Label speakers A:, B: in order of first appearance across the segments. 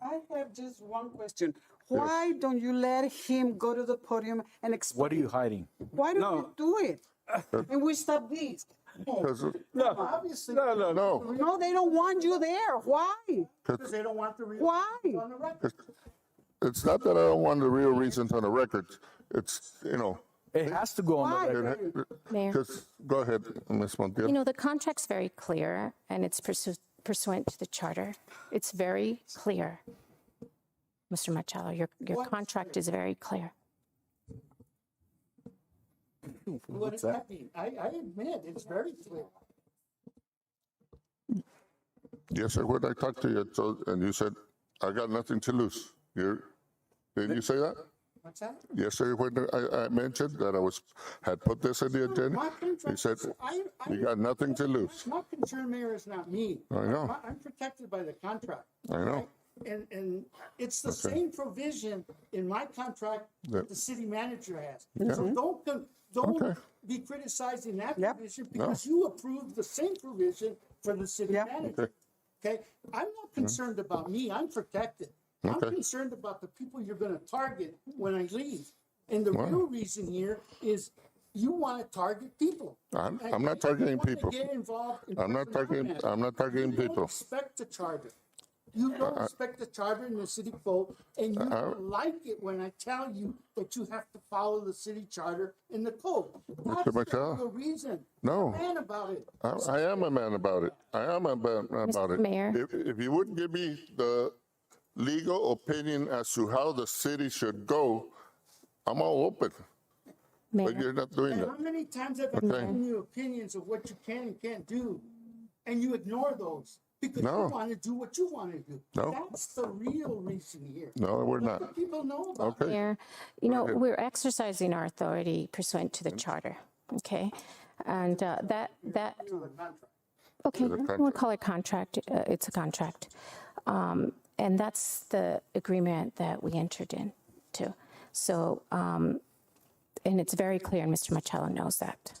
A: I have just one question. Why don't you let him go to the podium and explain?
B: What are you hiding?
A: Why don't
B: No.
A: you do it? And we stop this.
C: Because
B: No, no, no, no.
C: no,
A: No, they don't want you there. Why?
D: Because they don't want the real.
A: Why?
D: On the record.
C: it's not that I don't want the real reasons on the record. It's you know,
B: It has to go on the
A: Why?
B: record.
C: it-
E: Mayor.
C: 'cause- go ahead, Ms. Montiel.
E: You know, the contract's very clear, and it's pursu- pursuant to the charter. It's very clear. Mr. Machado, your, your contract is very clear.
D: What does that mean? I, I admit, it's very clear.
C: Yes, sir. When I talked to you, so, and you said, I got nothing to lose. You're, didn't you say that?
D: What's that?
C: Yes, sir. When I, I mentioned that I was, had put this in the
D: My
C: agenda, you
D: contract-
C: said,
D: I- I-
C: you got nothing to lose.
D: My concern, Mayor, is not me.
C: I know.
D: I- I'm protected by the contract.
C: I know.
D: And, and it's the same provision in my contract that the city manager has. So don't, con- don't
C: Okay.
D: be criticizing that
A: Yep.
D: provision because you approved the same provision for the city
A: Yep.
D: manager. Okay, I'm not concerned about me, I'm protected. I'm
C: Mm-hmm. Okay.
D: concerned about the people you're gonna target when I leave. And the real reason here is you wanna target people.
C: I'm-
D: And
C: I'm not
D: you
C: targeting
D: wanna
C: people.
D: Get involved. in
C: I'm not
D: personnel
C: targeting-
D: matters.
C: I'm not targeting
D: You don't
C: people.
D: respect the charter. You don't respect the charter and the city code, and you don't like it when I tell you that you have to follow the city charter and the code. That's
C: Machado?
D: the reason.
C: No.
D: Man about it.
C: I, I am a man about it. I am a man about it.
E: Mayor.
C: If, if you wouldn't give me the legal opinion as to how the city should go, I'm all open, but
E: Mayor,
C: you're not doing
D: And how
C: that.
D: many times have I given you opinions of what you can and can't do, and you ignore those because
C: No.
D: you want to do what you want to do?
C: No.
D: That's the real reason here.
C: No, we're not.
D: Let the people know about it.
C: Okay,
E: Mayor, you know, we're exercising our authority pursuant to the charter, okay? And uh, that, that,
D: You're the contract.
E: Okay, we'll call it contract, uh, it's a contract. Um, And that's the agreement that we entered into. So, um, and it's very clear, and Mr. Machado knows that.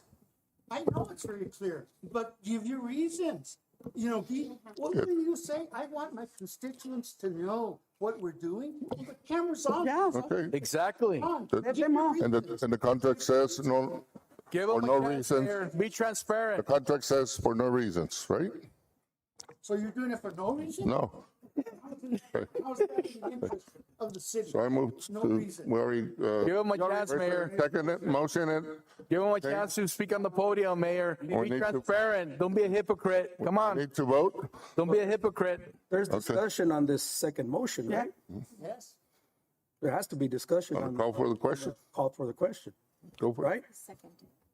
D: I know it's very clear, but give your reasons. You know, be, what do you say? I want my constituents to know what we're doing. The camera's on.
A: Yeah.
D: it's
C: okay.
B: Exactly.
D: on.
C: That-
D: Give your
C: And the,
D: reasons.
C: and the contract says no,
B: Give
C: For
B: them
C: no
B: a chance
C: reason.
B: there. Be transparent.
C: contract says for no reasons, right?
D: So you're doing it for no reason?
C: No.
D: How's that in the interest of the city?
C: So I moved
D: No
C: to,
D: reason.
C: we already,
B: Give
C: uh,
B: them a chance, Mayor.
C: second it, motion it.
B: Give them a chance to speak on the podium, Mayor.
C: We
B: Be
C: need to-
B: transparent. Don't be a hypocrite. Come on.
C: Need to vote?
B: Don't be a hypocrite.
F: There's discussion on this second motion, right?
D: Yes.
F: There has to be discussion on,
C: Call for the question.
F: call for the question,
C: Go for it.
F: right?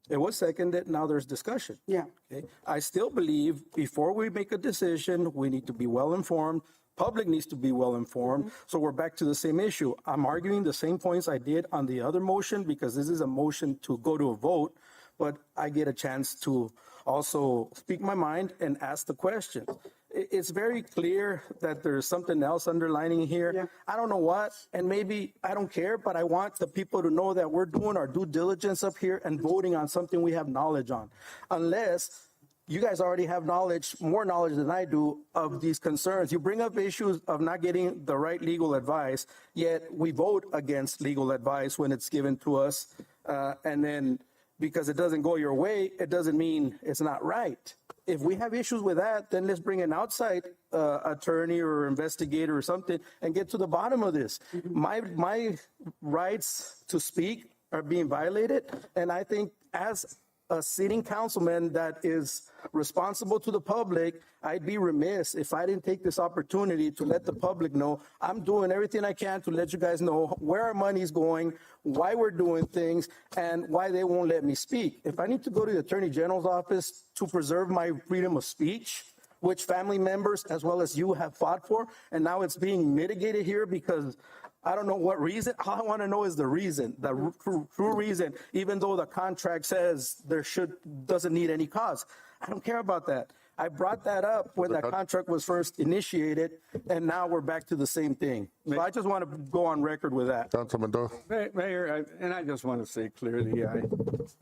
F: It was seconded, now there's discussion.
A: Yeah.
F: Okay, I still believe before we make a decision, we need to be well-informed. Public needs to be well-informed. So we're back to the same issue. I'm arguing the same points I did on the other motion because this is a motion to go to a vote, but I get a chance to also speak my mind and ask the question. I- It's very clear that there's something else underlining here. I don't know what, and maybe I don't care, but I want the people to know that we're doing our due diligence up here and voting on something we have knowledge on. Unless you guys already have knowledge, more knowledge than I do of these concerns. You bring up issues of not getting the right legal advice, yet we vote against legal advice when it's given to us. Uh, and then because it doesn't go your way, it doesn't mean it's not right. If we have issues with that, then let's bring an outside uh, attorney or investigator or something and get to the bottom of this. My, my rights to speak are being violated. And I think as a sitting councilman that is responsible to the public, I'd be remiss if I didn't take this opportunity to let the public know I'm doing everything I can to let you guys know where our money's going, why we're doing things, and why they won't let me speak. If I need to go to the Attorney General's office to preserve my freedom of speech, which family members as well as you have fought for, and now it's being mitigated here because I don't know what reason. All I want to know is the reason, the r- true, true reason, even though the contract says there should, doesn't need any cause. I don't care about that. I brought that up when that contract was first initiated, and now we're back to the same thing. So I just want to go on record with that.
C: Councilman Doyle?
G: Ma- Mayor, I- and I just want to say clearly, I,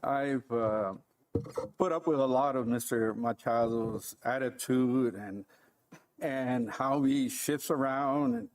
G: I've uh, put up with a lot of Mr. Machado's attitude and, and how he shifts around and